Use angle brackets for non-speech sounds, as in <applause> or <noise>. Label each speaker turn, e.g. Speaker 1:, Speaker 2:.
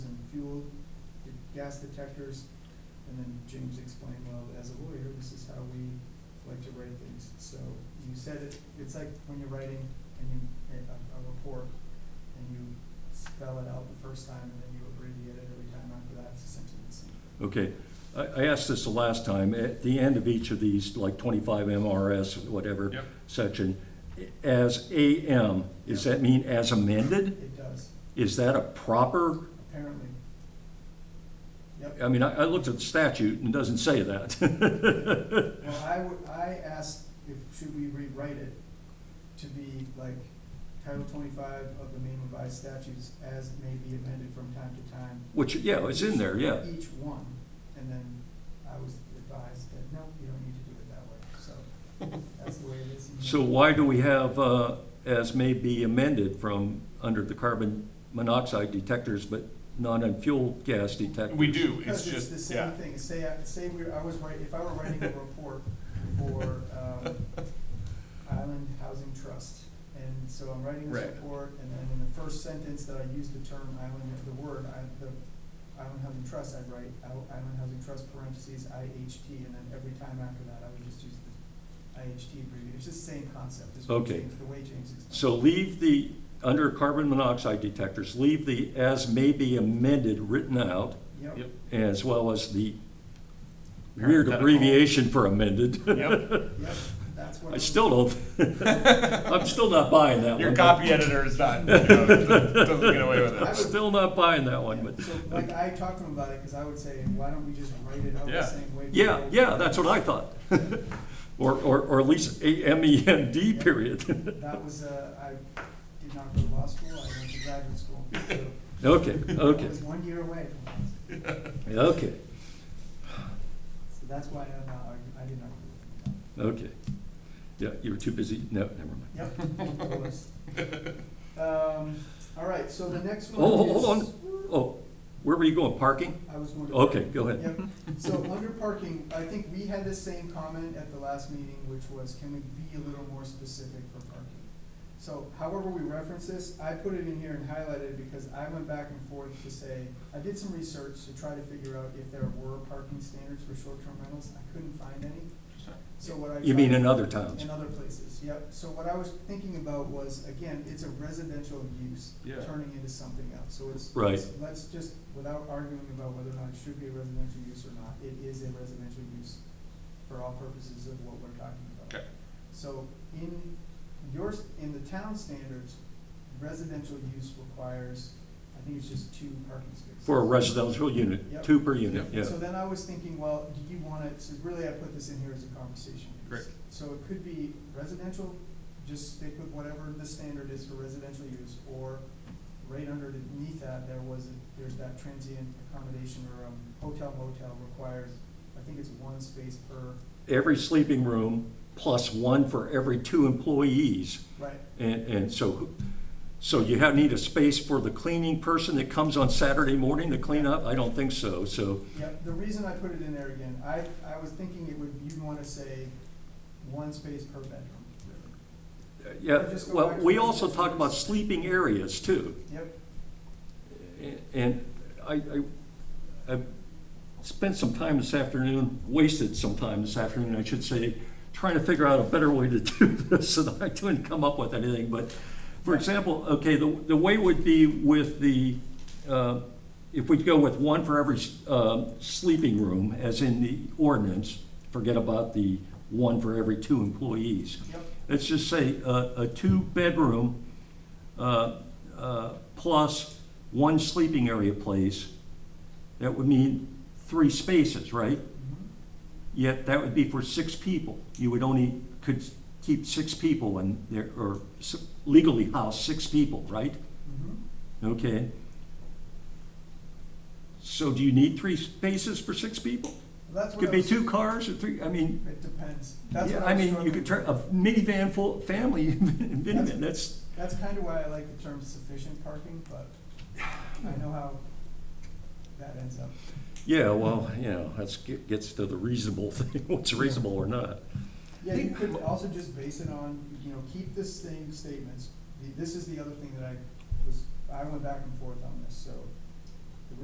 Speaker 1: gas detectors. And then James explained, well, as a lawyer, this is how we like to write things. So you said it, it's like when you're writing and you, a, a report, and you spell it out the first time, and then you abbreviate it every time after that, it's essentially the same.
Speaker 2: Okay, I, I asked this the last time, at the end of each of these, like twenty-five MRS, whatever
Speaker 3: Yep.
Speaker 2: section, as AM, does that mean as amended?
Speaker 1: It does,
Speaker 2: Is that a proper,
Speaker 1: apparently. Yep.
Speaker 2: I mean, I, I looked at the statute and it doesn't say that.
Speaker 1: Well, I would, I asked if, should we rewrite it to be like Title twenty-five of the main revised statutes as may be amended from time to time?
Speaker 2: <laughs> Which, yeah, it's in there, yeah.
Speaker 1: Each one, and then I was advised that, no, you don't need to do it that way, so
Speaker 2: <laughs>
Speaker 1: that's the way it is.
Speaker 2: So why do we have, uh, as may be amended from, under the carbon monoxide detectors, but not on fuel gas detectors?
Speaker 3: We do, it's
Speaker 1: Because it's the
Speaker 3: just,
Speaker 1: same
Speaker 3: yeah.
Speaker 1: thing, say, I- say we, I was writing, if I were writing a report for, um, Island Housing Trust. And so I'm writing this
Speaker 3: Right.
Speaker 1: report, and then in the first sentence that I use the term island, the word, I, the Island Housing Trust, I'd write Isle- Island Housing Trust parentheses IHT, and then every time after that, I would just use the IHT abbreviation. It's just the same concept, is what
Speaker 2: Okay.
Speaker 1: James, the way James explained.
Speaker 2: So leave the, under carbon monoxide detectors, leave the as may be amended written out,
Speaker 1: Yep.
Speaker 3: Yep.
Speaker 2: as well as the weird
Speaker 3: Parenthetical.
Speaker 2: abbreviation for amended.
Speaker 3: <laughs> Yep.
Speaker 1: Yep, that's what.
Speaker 2: <laughs> I
Speaker 1: I'm-
Speaker 2: still
Speaker 3: <laughs>
Speaker 2: don't, <laughs> I'm still not buying that one.
Speaker 3: Your copy editor is not, you know, doesn't doesn't get away with
Speaker 1: I
Speaker 2: I'm
Speaker 1: would-
Speaker 3: it.
Speaker 2: Still not buying that one, but,
Speaker 1: So, like, I talked to him about it, because I would say, why don't we just write it out the
Speaker 3: Yeah.
Speaker 1: same way? for
Speaker 2: yeah,
Speaker 1: both?"
Speaker 2: yeah, that's what I thought. <laughs> Or, or, or at least A M E N D
Speaker 1: Yeah.
Speaker 2: period. <laughs>
Speaker 1: That was, uh, I did not go to law school, I went to graduate school,
Speaker 2: <laughs>
Speaker 1: so
Speaker 2: Okay,
Speaker 1: I
Speaker 2: okay,
Speaker 1: was one year away from law school.
Speaker 2: <laughs>
Speaker 3: <laughs>
Speaker 2: okay,
Speaker 1: So that's why I'm not arguing, I did not agree
Speaker 2: okay. Yeah, you were too busy, no, never mind.
Speaker 1: with
Speaker 3: <laughs>
Speaker 1: him. Yep. full list. Um, all right, so the next one
Speaker 2: Oh,
Speaker 1: is.
Speaker 2: hold on, oh, where were you going, parking?
Speaker 1: I was going to.
Speaker 2: Okay, go ahead.
Speaker 1: Yep, so under parking, I think we had the same comment at the last meeting, which was, can we be a little more specific for parking? So however we reference this, I put it in here and highlighted because I went back and forth to say, I did some research to try to figure out if there were parking standards for short-term rentals, I couldn't find any, so what I.
Speaker 2: You mean
Speaker 1: tried-
Speaker 2: in other towns?
Speaker 1: in other places, yep. So what I was thinking about was, again, it's a residential use
Speaker 3: Yeah.
Speaker 1: turning into something else. So it's,
Speaker 2: Right.
Speaker 1: it's- let's just, without arguing about whether or not it should be a residential use or not, it is a residential use for all purposes of what we're talking about.
Speaker 3: Okay.
Speaker 1: So in your, in the town standards, residential use requires, I think it's just two parking spaces.
Speaker 2: For a residential unit,
Speaker 1: Yep.
Speaker 2: two per unit, yeah.
Speaker 1: So then I was thinking, well, do you want to, so really I put this in here as a conversation piece.
Speaker 3: Correct.
Speaker 1: So it could be residential, just stick with whatever the standard is for residential use, or right underneath that, there was, a- there's that transient accommodation or um, hotel motel requires, I think it's one space per,
Speaker 2: Every sleeping room plus one for every two employees.
Speaker 1: right,
Speaker 2: And, and so, so you have, need a space for the cleaning person that comes on Saturday morning to clean up? I don't think so, so,
Speaker 1: Yep, the reason I put it in there again, I, I was thinking it would, you'd want to say one space per bedroom.
Speaker 2: uh, yeah.
Speaker 1: Just go
Speaker 2: Well,
Speaker 1: back to
Speaker 2: we
Speaker 1: the
Speaker 2: also talk
Speaker 1: residential
Speaker 2: about
Speaker 1: use.
Speaker 2: sleeping areas too.
Speaker 1: Yep,
Speaker 2: And I, I, I spent some time this afternoon, wasted some time this afternoon, I should say, trying to figure out a better way to <laughs> do this, and I couldn't come up with anything, but, for example, okay, the, the way would be with the, uh, if we go with one for every, uh, sleeping room, as in the ordinance, forget about the one for every two employees
Speaker 1: yep,
Speaker 2: let's just say, a, a two-bedroom, uh, uh, plus one sleeping area place, that would mean three spaces, right?
Speaker 1: mhm,
Speaker 2: Yet that would be for six people. You would only, could keep six people in there, or s- legally house six people, right?
Speaker 1: mhm.
Speaker 2: Okay. So do you need three spaces for six people?
Speaker 1: That's what
Speaker 2: Could
Speaker 1: I
Speaker 2: be
Speaker 1: was-
Speaker 2: two cars or three, I mean,
Speaker 1: It depends. That's
Speaker 2: yeah,
Speaker 1: what
Speaker 2: I
Speaker 1: I'm
Speaker 2: mean, you
Speaker 1: struggling
Speaker 2: could
Speaker 1: with.
Speaker 2: turn a minivan full, family <laughs> minivan, that's,
Speaker 1: That's kind of why I like the term sufficient parking, but I know how that ends up.
Speaker 2: yeah, well, you know, that's, get- gets to the reasonable <laughs> thing, what's reasonable or not.
Speaker 1: Yeah, you could also just base it on, you know, keep this thing statements. The- This is the other thing that I was, I went back and forth on this, so